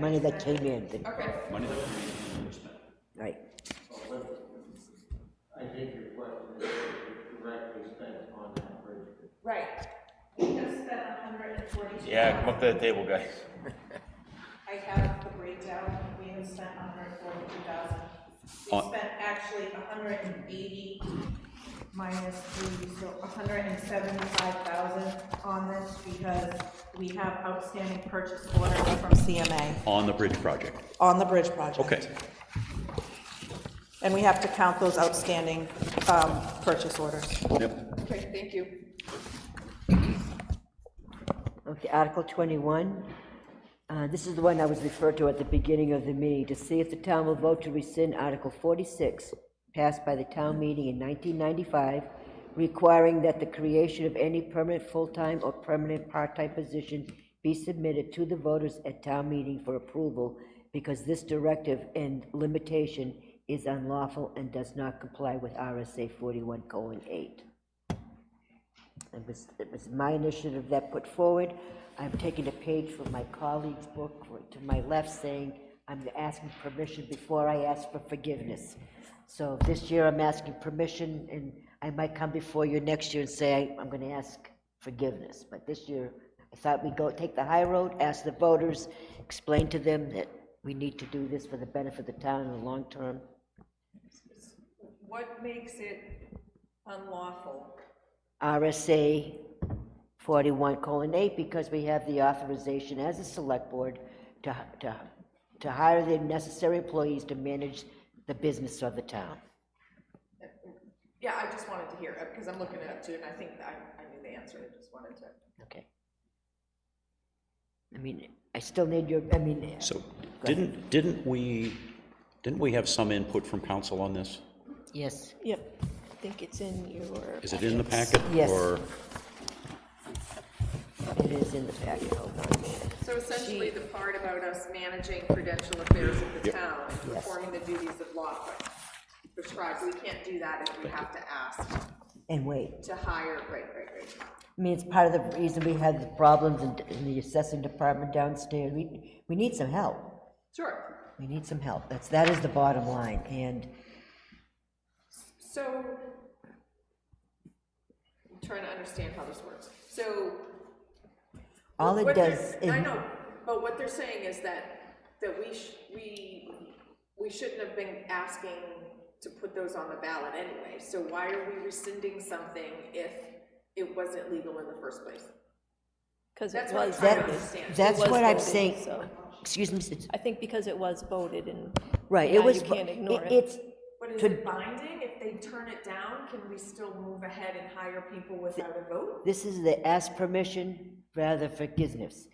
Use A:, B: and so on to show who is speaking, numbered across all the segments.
A: money that came in, the-
B: Okay,
C: Money that we can investment.
A: right.
D: I think your question is directly spent on that bridge.
B: right.
E: We have spent hundred and forty-two.
F: Yeah, come up to the table, guys.
E: I have the breakdown, we have spent hundred and forty-two thousand. We
C: On-
E: spent actually hundred and eighty minus three, so hundred and seventy-five thousand on this because we have outstanding purchase orders from CMA
C: On the bridge project,
E: on the bridge project.
C: okay.
E: And we have to count those outstanding, um, purchase orders.
C: Yep,
B: Okay, thank you.
A: Okay, Article 21. Uh, This is the one I was referred to at the beginning of the meeting, to see if the town will vote to rescind Article 46, passed by the town meeting in 1995, requiring that the creation of any permanent full-time or permanent part-time position be submitted to the voters at town meeting for approval, because this directive and limitation is unlawful and does not comply with RSA 41:8. It was, it was my initiative that put forward. I'm taking a page from my colleague's book to my left saying, I'm asking permission before I ask for forgiveness. So this year I'm asking permission and I might come before you next year and say, I'm going to ask forgiveness. But this year, I thought we'd go, take the high road, ask the voters, explain to them that we need to do this for the benefit of the town in the long term.
B: What makes it unlawful?
A: RSA 41 colon 8, because we have the authorization as a select board to, to, to hire the necessary employees to manage the business of the town.
B: Yeah, I just wanted to hear, it because I'm looking it up too, and I think I, I knew the answer, I just wanted to.
A: Okay. I mean, I still need your, I mean,
C: so didn't, didn't we, didn't we have some input from council on this?
A: yes,
E: Yep, I think it's in your.
C: Is it in the packet?
A: Yes.
C: Or
A: it is in the packet, hold on a minute.
B: So essentially, the part about us managing prudential affairs of the
C: Yep.
B: town, and performing the duties of law prescribed, we can't do that if we have to ask
A: And wait,
B: to hire, right, right, right.
A: I mean, it's part of the reason we had the problems in, in the assessing department downstairs. We, we need some help.
B: Sure.
A: We need some help. That's, that is the bottom line, and
B: So, I'm trying to understand how this works. So.
A: all it
B: what they're-
A: does. is.
B: I know, but what they're saying is that, that we, sh- we, we shouldn't have been asking to put those on the ballot anyway. So why are we rescinding something if it wasn't legal in the first place?
G: Because it
B: That's what I'm
G: was,
B: trying to
A: That,
B: understand.
A: that's
G: was
A: what I'm
G: voted,
A: saying,
G: so.
A: excuse me, it's-
G: I think because it was voted and.
A: right,
G: now
A: it was,
G: You can't ignore it.
A: it's,
B: But is
A: To-
B: it binding? If they turn it down, can we still move ahead and hire people without a vote?
A: this is the ask permission rather than forgiveness.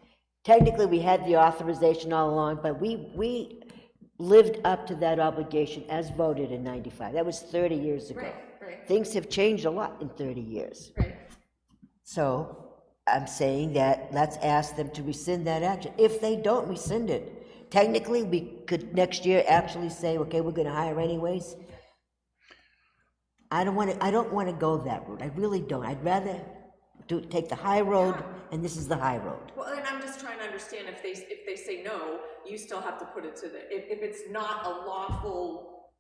A: Technically, we had the authorization all along, but we, we lived up to that obligation as voted in 95. That was 30 years ago.
B: Right, right.
A: Things have changed a lot in 30 years.
B: Right.
A: So I'm saying that let's ask them to rescind that action. If they don't rescind it, technically, we could next year actually say, okay, we're gonna hire anyways. I don't wanna, I don't wanna go that route. I really don't. I'd rather do, take the high road, and this is the high road.
B: Well, and I'm just trying to understand if they, if they say no, you still have to put it to the, if, if it's not a lawful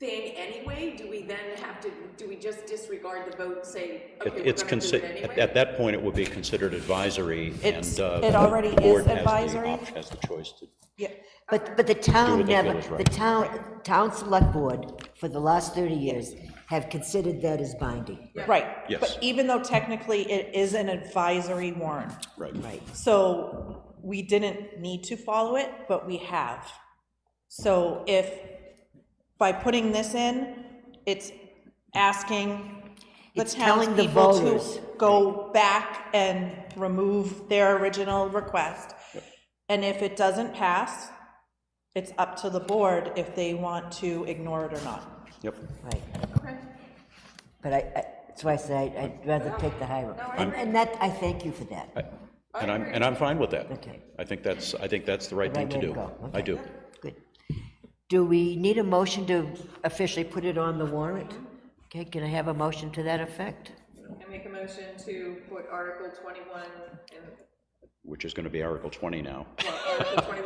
B: thing anyway, do we then have to, do we just disregard the vote and say,
C: it-
B: okay, we're
C: it's,
B: gonna do it
C: consi-
B: anyway?
C: at at that point, it would be considered advisory and.
G: It's-
C: uh,
G: it already
C: the board
G: is
C: has the
G: advisory.
C: op- Has the choice to,
A: But, but the
C: Do
A: town
C: what they feel
A: never,
C: is
A: the
C: right.
A: town, town select board, for the last thirty years, have considered that as binding.
G: Right.
C: Yes.
G: But even though technically it is an advisory warrant,
C: right.
A: Right.
G: so we didn't need to follow it, but we have. So if, by putting this in, it's asking the
A: It's telling the
G: townspeople
A: voters.
G: to go back and remove their original request. And if it doesn't pass, it's up to the board if they want to ignore it or not.
C: Yep.
A: Right. But I, I, that's why I said I- I'd rather take the high road.
B: No, I
A: And-
B: agree.
A: And that, I thank you for that.
C: I- And I'm, and I'm fine with that.
A: Okay.
C: I think that's, I think that's the right thing
A: Right
C: to
A: way
C: do.
A: go.
C: I
A: Okay.
C: do.
A: Good. Do we need a motion to officially put it on the warrant? Okay, can I have a motion to that effect?
B: I make a motion to put Article twenty-one and,
C: Which is going to be Article 20 now.
B: well, Article twenty-one